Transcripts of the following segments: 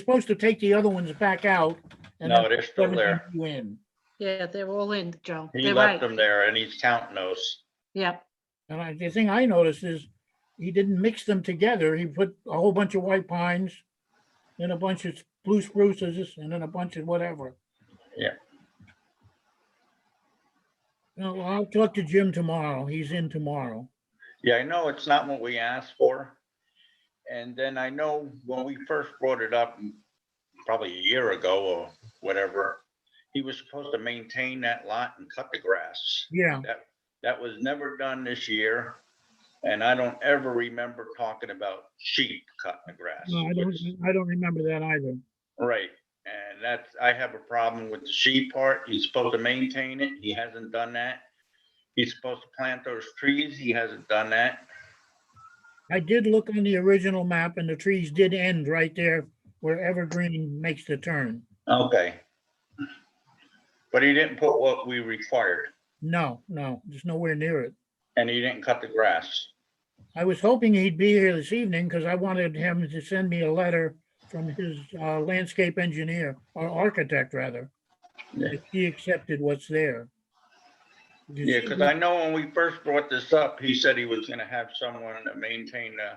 supposed to take the other ones back out. and No, then they're still there. everything you In, Yeah, they're all in, Joe. He They're left right. them there and he's counting those. Yep, and I, the thing I noticed is he didn't mix them together. He put a whole bunch of white pines, then a bunch of blue spruces, and then a bunch of whatever. Yeah. No, I'll talk to Jim tomorrow. He's in tomorrow. Yeah, I know it's not what we asked for. And then I know when we first brought it up, probably a year ago or whatever, he was supposed to maintain that lot and cut the grass. Yeah, That was never done this year. And I don't ever remember talking about sheep cutting the grass. no, I don't, which- I don't remember that either. Right, and that's, I have a problem with the sheep part. He's supposed to maintain it. He hasn't done that. He's supposed to plant those trees. He hasn't done that. I did look on the original map and the trees did end right there where Evergreen makes the turn. Okay. But he didn't put what we required No, no, just nowhere near it. and he didn't cut the grass. I was hoping he'd be here this evening because I wanted him to send me a letter from his uh, landscape engineer or architect rather. Yeah. If he accepted what's there. Yeah, because I know when we first brought this up, he said he was gonna have someone to maintain the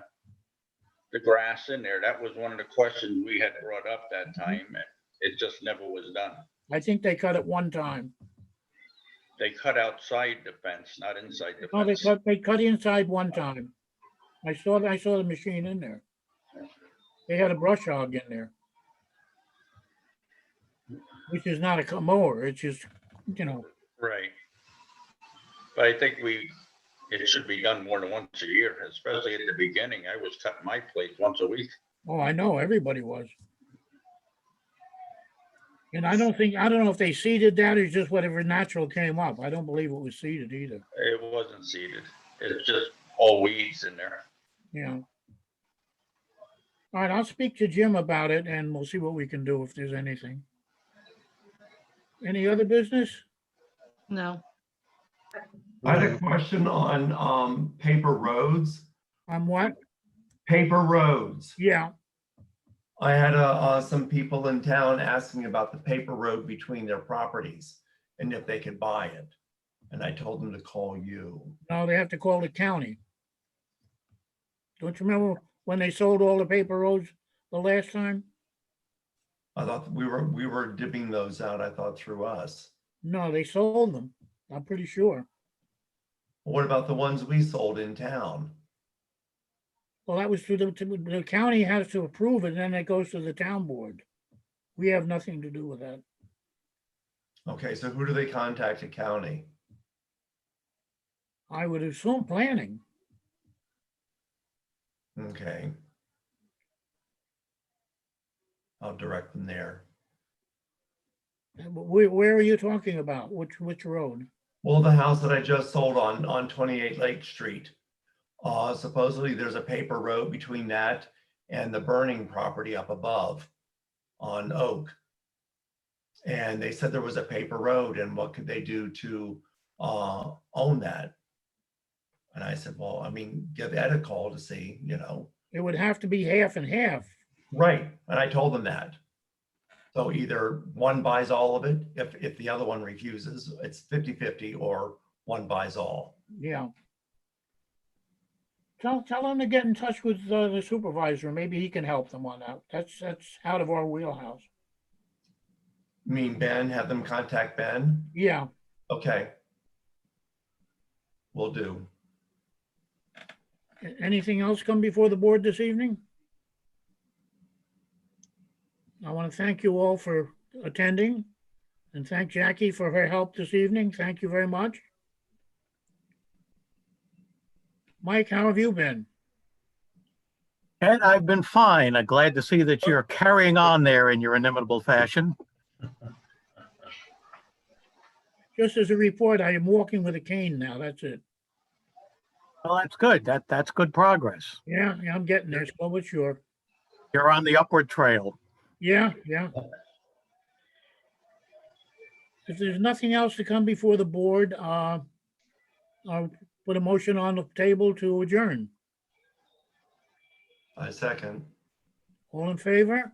the grass in there. That was one of the questions we had brought up that Mm-hmm. time and it just never was done. I think they cut it one time. They cut outside the fence, not inside the No, Oh, they fence. cut, they cut inside one time. I saw, I saw the machine in there. They had a brush hog in there. Which is not a co- mower, it's just, you know, Right. But I think we, it should be done more than once a year, especially at the beginning. I was cutting my plates once a week. oh, I know, everybody was. And I don't think, I don't know if they seeded that or just whatever natural came up. I don't believe it was seeded either, It wasn't seeded. It's just all weeds in there. you know. All right, I'll speak to Jim about it and we'll see what we can do if there's anything. Any other business? no, I had a question on um paper roads, On what? paper roads. Yeah, I had uh, uh some people in town asking about the paper road between their properties and if they could buy it. And I told them to call you. no, they have to call the county. Don't you remember when they sold all the paper roads the last time? I thought we were, we were dipping those out, I thought through us. No, they sold them. I'm pretty sure. What about the ones we sold in town? Well, that was through the, to- the county has to approve it, then it goes to the town board. We have nothing to do with that. Okay, so who do they contact at county? I would assume planning. Okay. I'll direct them there. Uh, but Where, where are you talking about? Which, which road? Well, the house that I just sold on, on twenty-eight Lake Street. Uh, supposedly there's a paper road between that and the burning property up above on Oak. And they said there was a paper road and what could they do to, uh, own that? And I said, well, I mean, give Ed a call to see, you know, It would have to be half and half. right, and I told them that. So either one buys all of it, if, if the other one refuses, it's 50-50, or one buys all. Yeah. Tell, tell him to get in touch with uh, the supervisor. Maybe he can help them on that. That's, that's out of our wheelhouse. You mean Ben, have them contact Ben? Yeah, Okay. Will do. A- anything else come before the board this evening? I want to thank you all for attending and thank Jackie for her help this evening. Thank you very much. Mike, how have you been? Ed, I've been fine. I'm glad to see that you're carrying on there in your inimitable fashion. Just as a report, I am walking with a cane now. That's it. Well, that's good. That, that's good progress. Yeah, yeah, I'm getting there. So it's your, You're on the upward trail. yeah, yeah. If there's nothing else to come before the board, uh, I'll put a motion on the table to adjourn. I second. All in favor?